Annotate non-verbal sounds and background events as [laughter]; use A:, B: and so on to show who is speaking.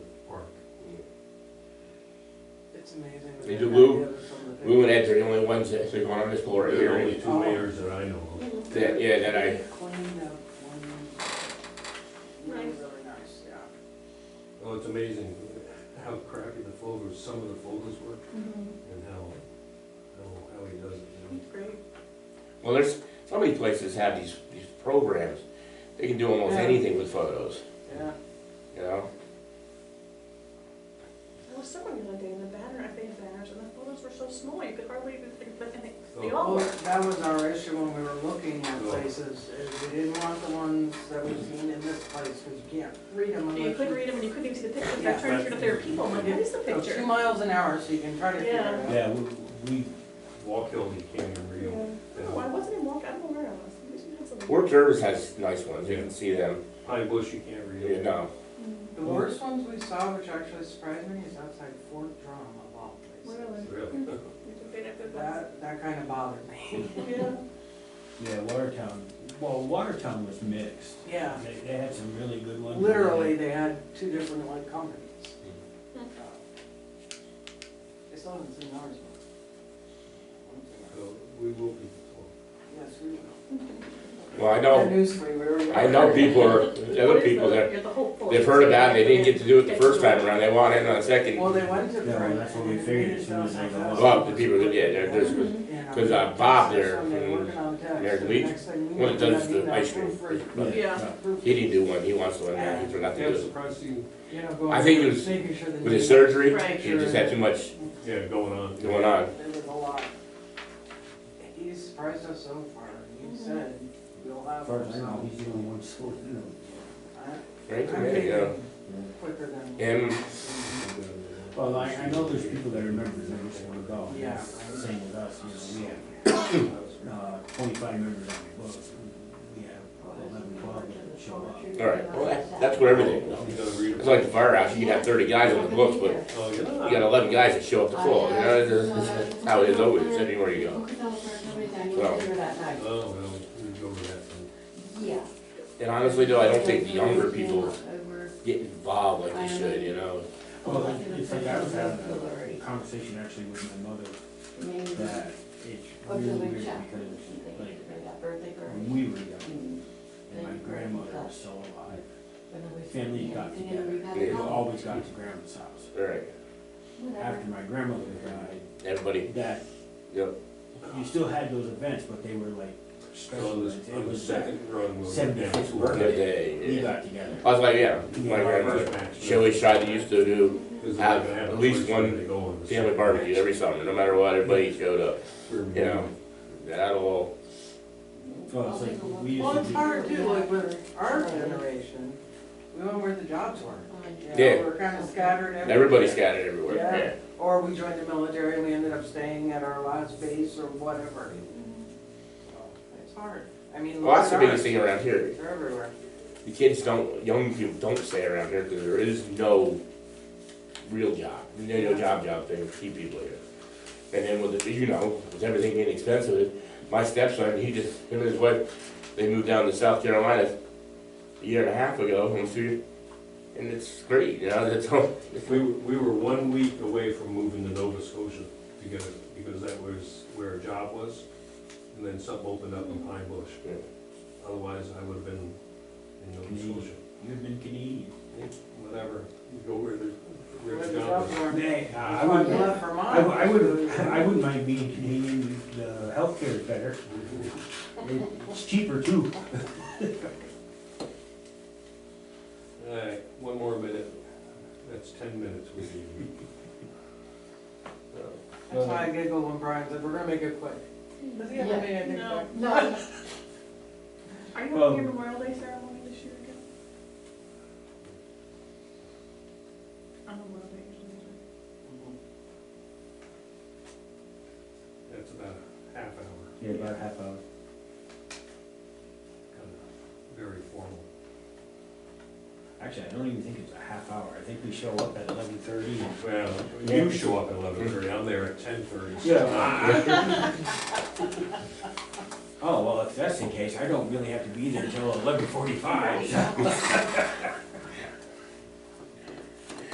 A: It's amazing.
B: They do
A: the
B: Lou.
A: idea of some of the
B: Lou and Ed's are the only ones that actually going on this floor
C: There are
B: here.
C: only two mayors that I know of.
B: That, yeah, that I,
A: things- Clean up, one-
D: Nice.
A: Really nice, yeah.
C: Well, it's amazing how crappy the folders, some of the folders work and how, how, how he does it, you know.
D: Great.
B: well, there's, so many places have these, these programs. They can do almost
A: Yeah.
B: anything with photos,
A: Yeah,
B: you know?
D: There was someone the other day, and the banner, I think the banners, and the photos were so small, you could hardly even, think- but and they-
B: Oh.
D: they
A: well,
D: all were.
A: Oh, that was our issue when we were looking at places, is we didn't want the ones that we've seen in this place, cause you can't read them
D: You
A: unless
D: couldn't
A: you.
D: read them, and you couldn't even see the pictures, and
A: Yeah.
D: I tried to figure out if they were people, I'm like, what is the
A: Go two
D: picture?
A: miles an hour, so you can try to figure
D: Yeah.
A: it out.
E: Yeah, we, we,
C: Walk Hill, you can't even read
D: Yeah.
C: them.
D: Oh, I wasn't in walk, I don't know where I was. I think we had something.
B: Fort Jervis has nice ones, you can see them,
C: Pine Bush, you can't read
B: you
C: them.
B: know?
D: Mm.
A: The worst ones we saw, which actually surprised me, is outside Fort Drum of all places.
D: Really?
C: Really?
D: You took it at the bus.
A: That, that kinda bothered me.
D: Yeah.
E: yeah, Watertown, well, Watertown was mixed.
A: Yeah,
E: They, they had some really good ones.
A: literally, they had two different like companies.
D: Hmm.
A: They still haven't seen ours yet.
C: So we will be, told.
A: Yes, we will.
B: Well, I know,
A: That news for you, we were-
B: I know people are, the
D: What
B: other
D: is
B: people
D: the-
B: that,
D: You're the hopeful.
B: they've heard about it, they didn't get to do it the first time around, they want in on a second.
A: Well, they went to.
E: Yeah, well, that's what we figured, as soon as they go up.
B: Well, the people, that- yeah,
D: Mm-hmm.
B: they're just,
A: Yeah.
B: 'cause, uh, Bob there
A: That's when they
B: from
A: working on text,
B: American
A: and
B: Legion,
A: next thing we
B: when it
A: know,
B: does
A: that
B: the
A: email
B: ice
A: proof
B: cream.
A: for-
E: Yeah.
D: Yeah.
A: proof-
B: He didn't do one, he wants one, now he's not to
C: yeah,
B: do
C: I'm
B: it.
C: surprised he,
A: You know, going
B: I think it
A: through,
B: was
A: making sure that
B: With his
A: you-
B: surgery,
D: Right.
B: he just had too much
C: yeah, going on.
B: going on.
A: There was a lot. He surprised us so far, he said, we'll have.
E: As far as I know,
A: some."
E: he's the only one still in them.
A: I-
B: Right,
A: I'm
B: there you go.
A: thinking quicker than.
B: And
E: Well, I, I know there's people that are members that just wanna go. and
A: Yeah.
E: that's the Same with us, you know, we have, uh, twenty-five members on the books, we have eleven, twelve that show up.
B: All right, well, that- that's with everything, though.
C: You gotta read
B: It's
C: them.
B: like the firehouse, you can have thirty guys on the books, but
C: Oh, yeah.
B: you got eleven guys that show up to floor, you know, it's, it's- it's how it is always, anywhere you go. Well.
C: Oh, well, we go over that. then.
F: Yeah.
B: And honestly, though, I don't think the younger people get involved like they should, you know?
E: Well, it's like I was having a conversation actually with my mother, that it's really weird because, like, when we were young, and my grandmother was still alive, family got together, they always got to grandma's house.
B: All right,
E: After my grandmother died,
B: everybody,
E: that,
B: yep,
E: you still had those events, but they were like
C: On
E: special events,
C: the, on
E: it
C: the
E: was that
C: second run, we'll.
E: seventy-fifth
B: good
E: birthday,
B: day.
E: we
B: yeah.
E: got together.
B: I was like, yeah, my grandmother, Shelley Shide used to do have at least one family barbecue every summer, no matter what, everybody showed up, you know? That'll,
E: Well, it's like, we
A: Well,
E: used
A: it's
E: to do,
A: hard too, like with our generation, we went where the jobs were. you know,
B: Yeah.
A: We're kinda scattered everywhere.
B: everybody scattered everywhere,
A: Yeah,
B: yeah.
A: or we joined the military and we ended up staying at our last base or whatever. So, It's hard, I mean.
B: Well, that's the
A: look at
B: biggest
A: ours.
B: thing around here,
A: They're everywhere.
B: the kids don't, young people don't stay around here because there is no real job, no, no job job thing to keep people here. And then with, the- you know, with everything being expensive, my stepson, he just, him and his wife, they moved down to South Carolina a year and a half ago, and so, and it's great, you know, [laughs] that's all.
C: We, were- we were one week away from moving to Nova Scotia because, because that was where our job was. And then something opened up in Pine Bush.
B: Yeah. Mm-hmm.
C: Otherwise, I would have been in Nova
E: Canadian.
C: Scotia.
E: you've been Canadian.
C: Whatever, you go where there's,
A: Where
C: where
A: the
C: the job
A: jobs
C: is.
A: were.
E: Nay, uh, I
A: When we
E: wouldn't,
A: left Vermont.
E: I, wou- I would, I wouldn't mind being Canadian, the healthcare is better, it's cheaper too.
C: All right, one more minute. That's ten minutes we need.
B: [laughs]
A: That's why I giggle when Brian said, we're gonna make it quick. Does he ever
F: Yeah.
A: make anything
D: No.
A: quick?
F: No,
D: Are you
E: Well-
D: having your Memorial Day ceremony this year again? On Memorial Day usually. is it?
C: That's about a half hour,
E: Yeah, about half hour.
C: kind of very formal.
E: Actually, I don't even think it's a half hour, I think we show up at eleven thirty.
C: Well,
E: Yeah.
C: you show up at eleven thirty, I'm there at ten thirty.
E: [laughs] Oh, well, if that's the case, I don't really have to be there until eleven forty-five.